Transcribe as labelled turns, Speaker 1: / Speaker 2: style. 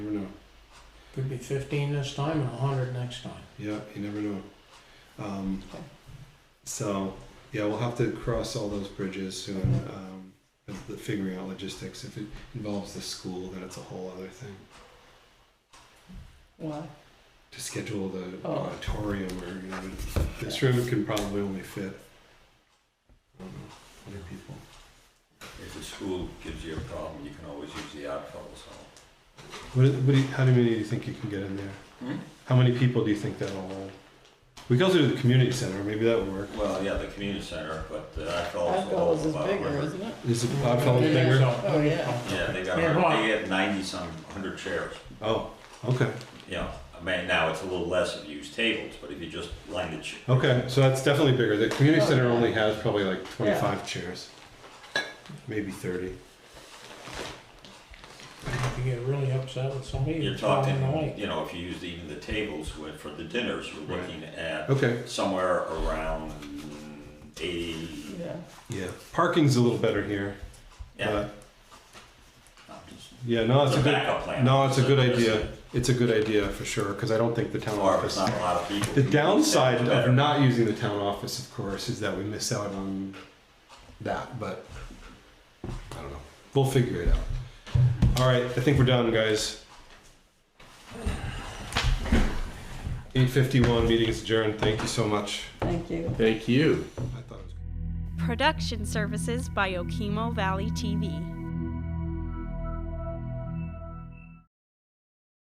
Speaker 1: never know.
Speaker 2: Could be fifteen this time and a hundred next time.
Speaker 1: Yeah, you never know. Um, so yeah, we'll have to cross all those bridges soon.
Speaker 2: Mhm.
Speaker 1: Um, with the figuring out logistics. If it involves the school, then it's a whole other thing.
Speaker 3: What?
Speaker 1: To schedule the
Speaker 3: Oh.
Speaker 1: auditorium, or you know, this room can probably only fit. I don't know, hundred people.
Speaker 4: If the school gives you a problem, you can always use the outfall, so.
Speaker 1: What, what do you, how many do you think you can get in there?
Speaker 3: Hmm?
Speaker 1: How many people do you think that'll hold? We could also do the community center. Maybe that would work.
Speaker 4: Well, yeah, the community center, but the outfall's.
Speaker 3: Alcohol's is bigger, isn't it?
Speaker 1: Is it Bob Fellows
Speaker 3: Yeah.
Speaker 1: bigger?
Speaker 2: So,
Speaker 3: Oh, yeah.
Speaker 4: Yeah, they got,
Speaker 2: Yeah,
Speaker 4: a
Speaker 2: come on.
Speaker 4: hundred- they had ninety-some, hundred chairs,
Speaker 1: Oh, okay,
Speaker 4: you know, I mean, now it's a little less if you use tables, but if you just line the. ch-
Speaker 1: okay. So that's definitely bigger. The community
Speaker 3: Oh,
Speaker 1: center
Speaker 3: yeah.
Speaker 1: only has probably like twenty-five chairs, maybe thirty.
Speaker 2: If you get really upset with somebody,
Speaker 4: You're
Speaker 2: you tell
Speaker 4: talking,
Speaker 2: them the light.
Speaker 4: you know, if you use even the tables with- for the dinners, we're
Speaker 1: Right.
Speaker 4: looking at
Speaker 1: Okay.
Speaker 4: somewhere around eighty.
Speaker 3: Yeah.
Speaker 1: Yeah, parking's a little better here.
Speaker 4: Yeah,
Speaker 1: but-
Speaker 4: I'm just-
Speaker 1: yeah. No, it's
Speaker 4: It's
Speaker 1: a
Speaker 4: a
Speaker 1: good.
Speaker 4: backup plan.
Speaker 1: No, it's a good
Speaker 4: It's a-
Speaker 1: idea. It's a good idea for sure because I don't think the town
Speaker 4: Or if it's
Speaker 1: office.
Speaker 4: not a lot of people.
Speaker 1: The
Speaker 4: you can use that
Speaker 1: downside
Speaker 4: better.
Speaker 1: of not using the town office, of course, is that we miss out on that, but I don't know. We'll figure it out. All right, I think we're done, guys. 8:51, meeting is adjourned. Thank you so much.
Speaker 3: Thank you.
Speaker 5: Thank you.
Speaker 1: I thought it was
Speaker 6: Production services by Okemo Valley TV.